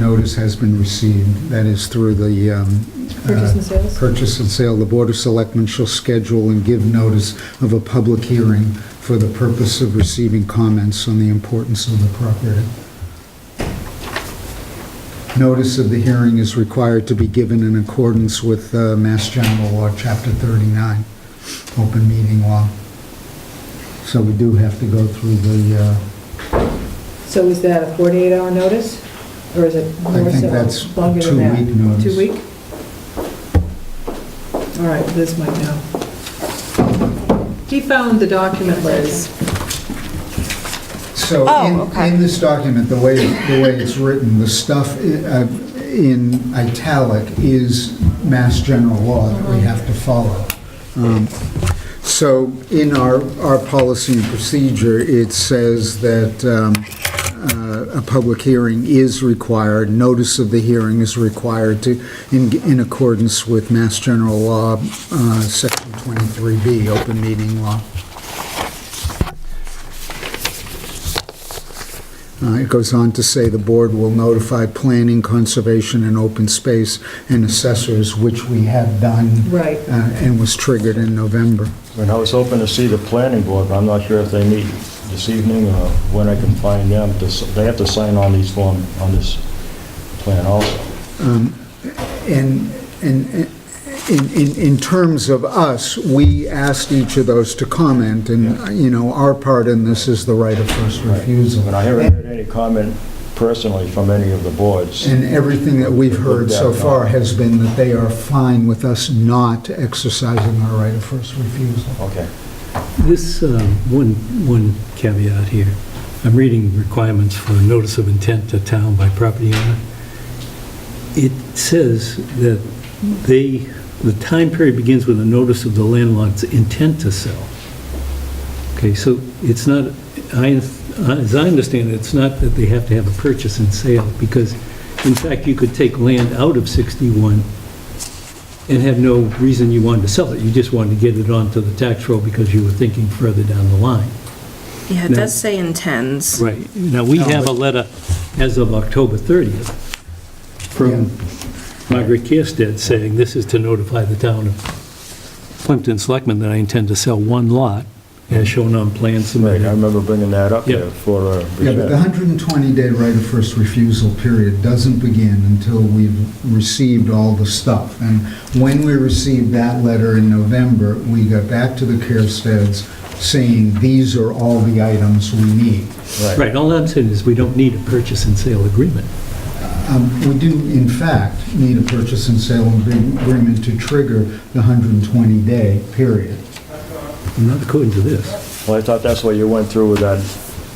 notice has been received. That is through the um, Purchase and sales? purchase and sale. The Board of Selectmen shall schedule and give notice of a public hearing for the purpose of receiving comments on the importance of the property. Notice of the hearing is required to be given in accordance with uh, Mass General Law, Chapter 39, open meeting law. So we do have to go through the, uh, So is that a 48-hour notice? Or is it I more think so, that's longer than that? two-week notice. Two week? All right, Liz might know. He found the document, Liz. So Oh, in- okay. in this document, the way, the way it's written, the stuff i- uh, in italic is mass general law that we have to follow. Um, So in our, our policy and procedure, it says that um, uh, a public hearing is required, notice of the hearing is required to, in in accordance with Mass General Law, uh, Section 23B, open meeting law. Uh, It goes on to say the board will notify planning, conservation, and open space and assessors, which we have done. Right. uh, And was triggered in November. And I was hoping to see the planning board, but I'm not sure if they meet this evening or when I can find them. This- They have to sign on these form, on this plan also. And, and, in, in, in terms of us, we asked each of those to comment, and, Yeah. you know, our part in this is the right of first refusal. But I haven't heard any comment personally from any of the boards. And everything that we've heard so far has been that they are fine with us not exercising our right of first refusal. Okay. This, uh, one, one caveat here. I'm reading requirements for a notice of intent to town by property owner. It says that they, the time period begins with a notice of the landlord's intent to sell. Okay, so it's not, I, as I understand it, it's not that they have to have a purchase and sale, because in fact, you could take land out of 61 and had no reason you wanted to sell it. You just wanted to get it onto the tax roll because you were thinking further down the line. Yeah, it No. does say intends. Right. Now, we No, have a but- letter as of October 30th from Margaret Kierstead saying, this is to notify the town of Plimpton Selectmen that I intend to sell one lot as shown on plan Right, I submitted. remember bringing that up Yeah. there for... uh, Yeah, but the 120-day right of first refusal period doesn't begin until we've received all the stuff. And when we received that letter in November, we got back to the Kirsteds saying, these are all the items we need. Right, all I'm saying is we don't need a purchase and sale agreement. Um, We do, in fact, need a purchase and sale agreement to trigger the 120-day period. Not according to this. Well, I thought that's what you went through with that,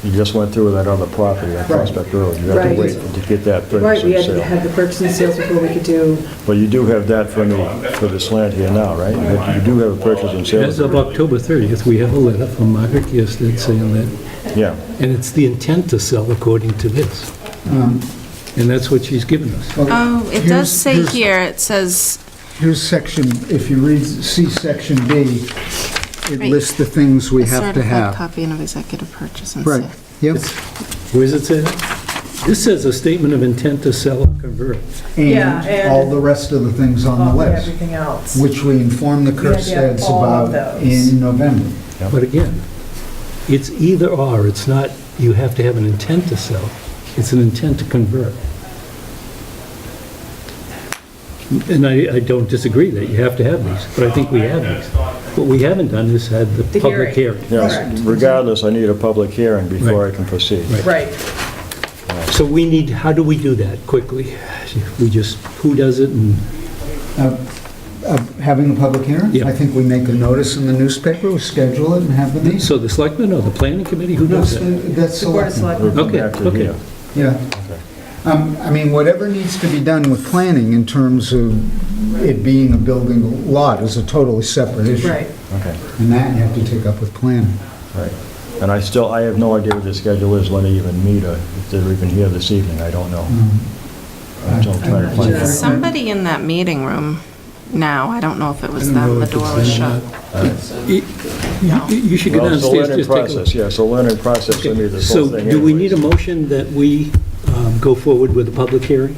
you just went through with that other property on Prospect Road. You have Right. to wait to get that Right, purchase we and had to sale. have the purchase and sales before we could do, But you do have that for me, for this land here now, right? You have- You do have a purchase and As of sale. October 30th, we have a letter from Margaret Kierstead saying that Yeah. And it's the intent to sell according to this. And that's what she's given us. Well, Oh, it here's- does say here's- here, it says, Here's section, if you read, see section B, it Right. lists the things we a have to certified have. copy and of executive purchase and Right, sale. yep. Where does it say that? This says a statement of intent to sell or convert. Yeah, and and- all the rest of the things on the all- list, everything else. which we informed the We had to have Kirkstads all of about those. in November. But again, it's either or, it's not, you have to have an intent to sell, it's an intent to convert. And I, I don't disagree that you have to have these, but I think we have these. What we haven't done is had the The public hearing. hearing. Yes, Correct. regardless, I need a public hearing before I Right. can proceed. Right. Right, So we need, how do we do that quickly? We just, who does it and Of Uh, Having a public hearing? Yeah. I think we make a notice in the newspaper, we schedule it and have the meeting. So the selectmen or the planning committee, who That's does the, that? that's the board of selectmen. selectmen. We'll come Okay, back to okay. here. Yeah. Um, I mean, whatever needs to be done with planning in terms of it being a building lot is a totally separate issue. right. Okay, And that you have to take up with planning. right. And I still, I have no idea what the schedule is, when they even meet, or if they're even here this evening, I don't know. Mm-hmm. Um, I'm still trying to find Right. There's out. somebody in that meeting room now, I don't know if it I was don't them, know the if door it's was them. shut. You- You should go Well, it's a downstairs, learning just take a process, look. yeah, it's a learning process, I mean, Okay, this whole So thing do we anyways. need a motion that we um, go forward with a public hearing?